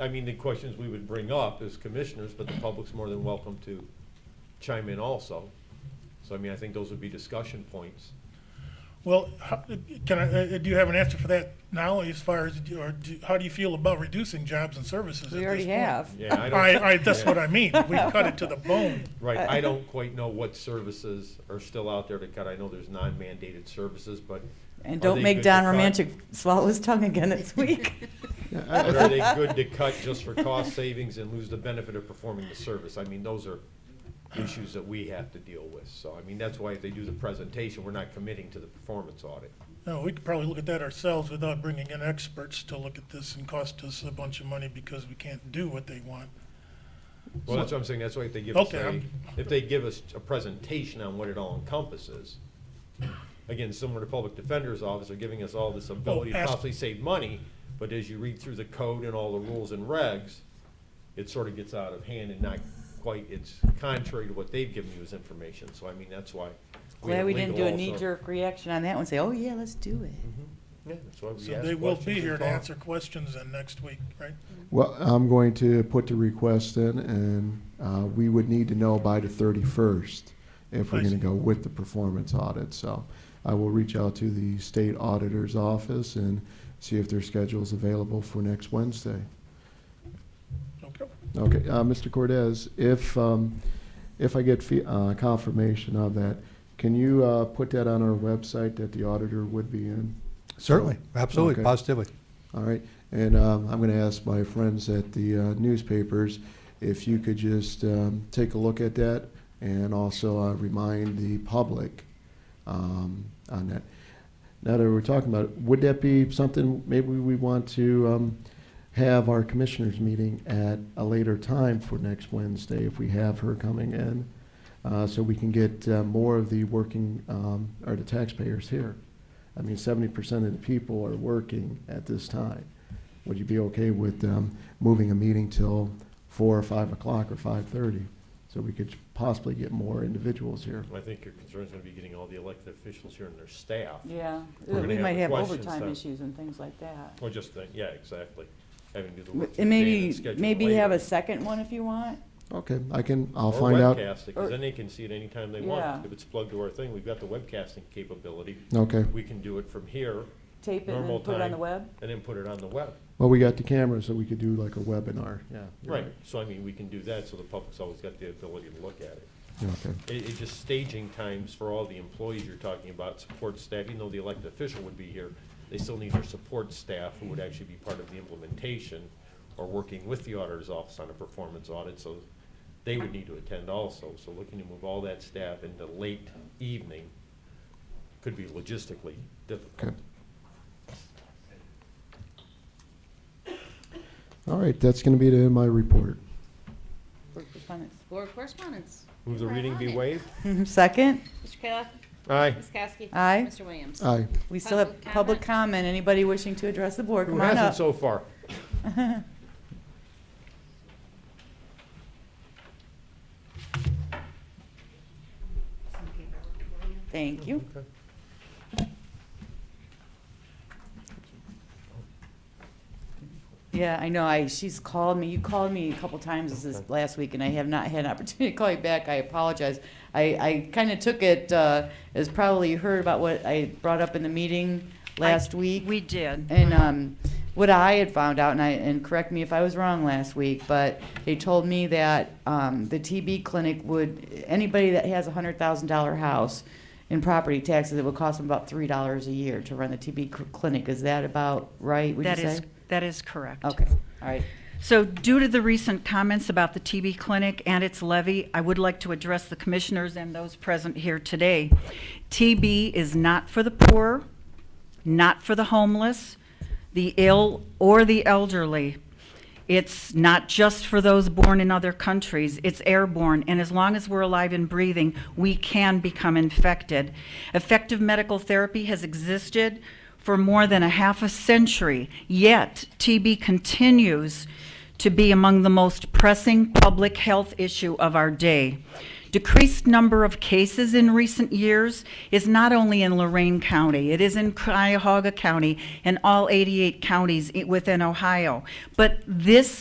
I mean, the questions we would bring up as commissioners, but the public's more than welcome to chime in also. So I mean, I think those would be discussion points. Well, how- can I, uh, do you have an answer for that now as far as, or do- how do you feel about reducing jobs and services at We this already point? have. Yeah, I All don't. right, all right, that's what yeah. I mean. We cut it to the bone. Right, I don't quite know what services are still out there to cut. I know there's non-mandated services, but And Are don't they make good to Don cut? Romantic swallow his tongue again this week. but are they good to cut just for cost savings and lose the benefit of performing the service? I mean, those are issues that we have to deal with. So I mean, that's why if they do the presentation, we're not committing to the performance audit. No, we could probably look at that ourselves without bringing in experts to look at this and cost us a bunch of money because we can't do what they want. Well, that's what I'm saying, that's why if they give us Okay, a, I'm- if they give us a presentation on what it all encompasses, again, similar to Public Defender's Office, they're giving us all this ability to ask- possibly save money, but as you read through the code and all the rules and regs, it sort of gets out of hand and not quite, it's contrary to what they've given you as information, so I mean, that's why. Glad have we didn't do legal a also. knee-jerk reaction on that one, say, oh yeah, let's do it. Yeah, that's why we So ask they will questions be and here to talk. answer questions then next week, right? Well, I'm going to put the request in, and uh, we would need to know by the 31st if we're I going to see. go with the performance audit. So I will reach out to the state auditor's office and see if their schedule's available for next Wednesday. Okay. Okay, uh, Mr. Cordez, if, um, if I get fee- uh, confirmation of that, can you uh, put that on our website that the auditor would be in? Certainly, absolutely, Okay. positively. All right, and um, I'm going to ask my friends at the uh, newspapers if you could just um, take a look at that and also uh, remind the public um, on that. Now that we're talking about it, would that be something maybe we want to um, have our commissioners meeting at a later time for next Wednesday if we have her coming in? uh, so we can get uh, more of the working, um, or the taxpayers here. I mean, seventy percent of the people are working at this time. Would you be okay with um, moving a meeting till four or five o'clock or five-thirty? So we could possibly get more individuals here. I think your concern's gonna be getting all the elected officials here and their staff, Yeah, We're gonna we have might the have questions overtime then. issues and things like that. or just, the- yeah, exactly, having to do the work. And today maybe, schedule maybe have a later. second one if you want. Okay, I can, I'll Or find out. webcast it, because Or- then they can see it anytime they Yeah. want. If it's plugged to our thing, we've got the webcasting capability. Okay, We can do it from here Tape it and Normal then put it on the time. web. and then put it on the web. well, we got the camera, so we could do like a webinar, yeah. you're Right, so I mean, we can do that, so the public's always got the ability to look at it. Yeah, Okay, It, it just staging times for all the employees you're talking about, support staff, even though the elected official would be here, they still need their support staff who would actually be part of the implementation or working with the auditor's office on a performance audit, so they would need to attend also. So looking to move all that staff into late evening could be logistically difficult. okay. All right, that's going to be it in my report. for correspondence. Board correspondence. Move the reading be waived? Second, Mr. Kayla. Aye. Ms. Kowski. Aye. Mr. Williams. Aye. we still have Public public comment? comment, anybody wishing to address the board, Who come on hasn't up. so far? Thank you. Okay. Yeah, I know. I she's called me. You called me a couple times this Okay. last week, and I have not had an opportunity to call you back. I apologize. I, I kind of took it uh, as probably you heard about what I brought up in the meeting last week. We did. And um, what I had found out, and I, and correct me if I was wrong last week, but they told me that um, the TB clinic would, anybody that has a hundred thousand dollar house in property taxes, it would cost them about three dollars a year to run the TB cl- clinic. Is that about right, would you That say? is, that is correct. Okay, all right. So due to the recent comments about the TB clinic and its levy, I would like to address the commissioners and those present here today. TB is not for the poor, not for the homeless, the ill, or the elderly. It's not just for those born in other countries, it's airborne, and as long as we're alive and breathing, we can become infected. Effective medical therapy has existed for more than a half a century, yet TB continues to be among the most pressing public health issue of our day. Decreased number of cases in recent years is not only in Lorraine County, it is in Cuyahoga County and all 88 counties i- within Ohio. But this